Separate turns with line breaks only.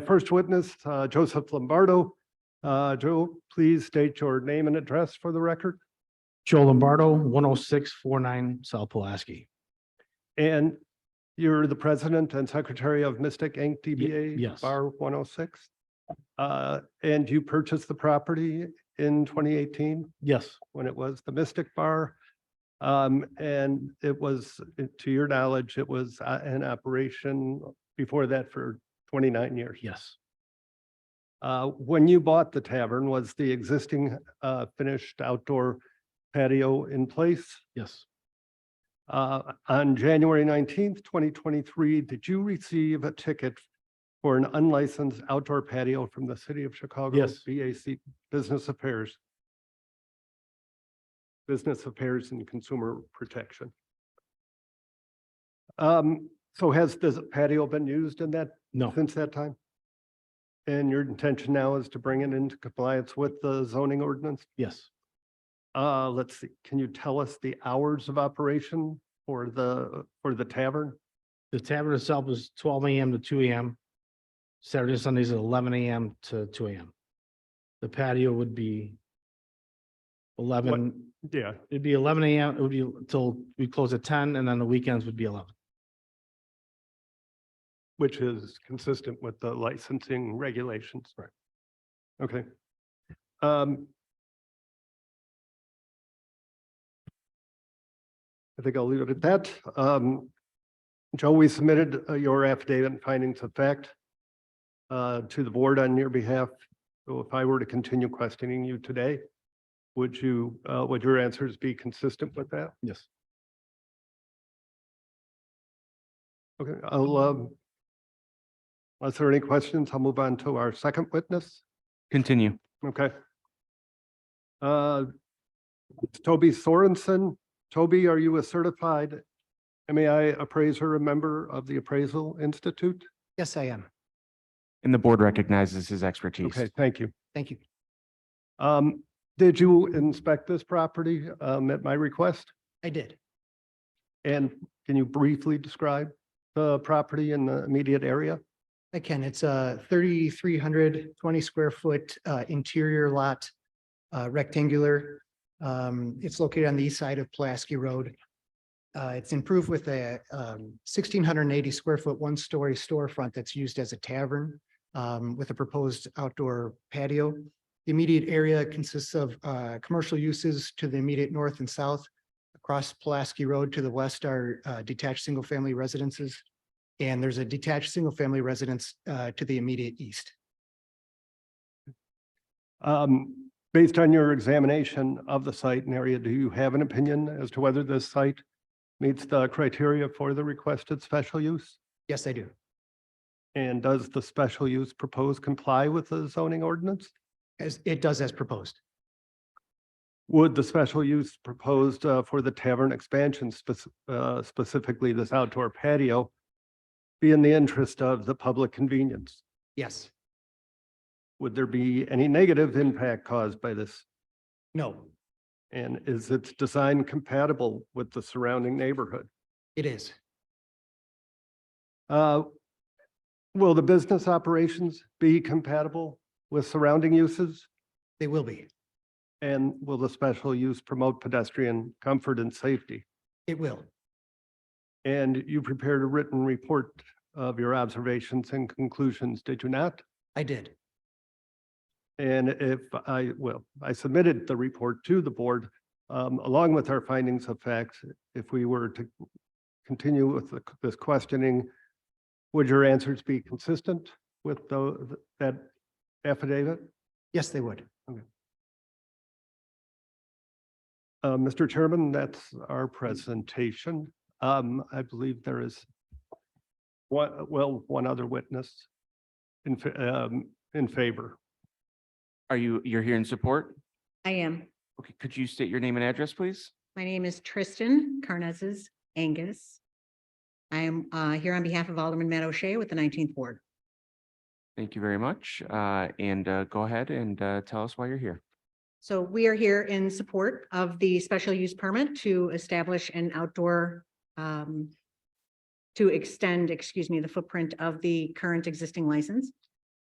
First witness, uh, Joseph Lombardo. Uh, Joe, please state your name and address for the record.
Joe Lombardo, one oh six four nine South Pulaski.
And you're the president and secretary of Mystic Inc. DBA.
yes.
Bar 106. Uh, And you purchased the property in 2018
Yes,
when it was the Mystic Bar. Um, And it was, to your knowledge, it was uh, in operation before that for 29 years.
yes,
Uh, when you bought the tavern, was the existing, uh, finished outdoor patio in place?
yes,
Uh, on January nineteenth, twenty twenty-three, did you receive a ticket for an unlicensed outdoor patio from the city of Chicago?
Yes.
BAC Business Affairs. Business Affairs and Consumer Protection. Um, so has this patio been used in that
no,
since that time? And your intention now is to bring it into compliance with the zoning ordinance?
yes.
Uh, let's see, can you tell us the hours of operation for the, for the tavern?
The tavern itself is twelve AM to two AM. Saturday and Sundays at eleven AM to two AM. The patio would be eleven,
Yeah.
it'd be eleven AM, it would be till we close at ten, and then the weekends would be eleven.
Which is consistent with the licensing regulations.
Right.
Okay. Um. I think I'll leave it at that. Um, Joe, we submitted uh, your affidavit and findings of fact uh, to the board on your behalf. So if I were to continue questioning you today, would you, uh, would your answers be consistent with that?
Yes.
Okay, I'll, um, unless there are any questions, I'll move on to our second witness.
Continue.
Okay. Uh, Toby Sorensen. Toby, are you a certified MAI appraiser, a member of the Appraisal Institute?
Yes, I am.
And the board recognizes his expertise.
Okay, thank you.
Thank you.
Um, did you inspect this property, um, at my request?
I did.
And can you briefly describe the property in the immediate area?
I can. It's a thirty-three hundred twenty square foot uh, interior lot, uh, rectangular. Um, It's located on the east side of Pulaski Road. Uh, It's improved with a um, sixteen hundred and eighty square foot, one-story storefront that's used as a tavern um, with a proposed outdoor patio. The immediate area consists of uh, commercial uses to the immediate north and south. Across Pulaski Road to the west are uh, detached single-family residences. And there's a detached single-family residence uh, to the immediate east.
Um, based on your examination of the site and area, do you have an opinion as to whether this site meets the criteria for the requested special use?
Yes, I do.
And does the special use proposed comply with the zoning ordinance?
As it does as proposed.
Would the special use proposed uh, for the tavern expansion, spec- uh, specifically this outdoor patio, be in the interest of the public convenience?
Yes.
Would there be any negative impact caused by this?
No,
And is its design compatible with the surrounding neighborhood?
it is.
Uh, Will the business operations be compatible with surrounding uses?
They will be.
And will the special use promote pedestrian comfort and safety?
It will.
And you prepared a written report of your observations and conclusions, did you not?
I did.
And if I, well, I submitted the report to the board um, along with our findings of facts. If we were to continue with the- this questioning, would your answers be consistent with tho- that affidavit?
Yes, they would.
Uh, Mr. Chairman, that's our presentation. Um, I believe there is one, well, one other witness in, fa- um, in favor.
Are you, you're here in support?
I am.
Okay, could you state your name and address, please?
My name is Tristan Carnezes Angus. I am uh, here on behalf of Alderman Matt O'Shea with the nineteenth ward.
Thank you very much. Uh, and, uh, go ahead and, uh, tell us why you're here.
So we are here in support of the special use permit to establish an outdoor um, to extend, excuse me, the footprint of the current existing license.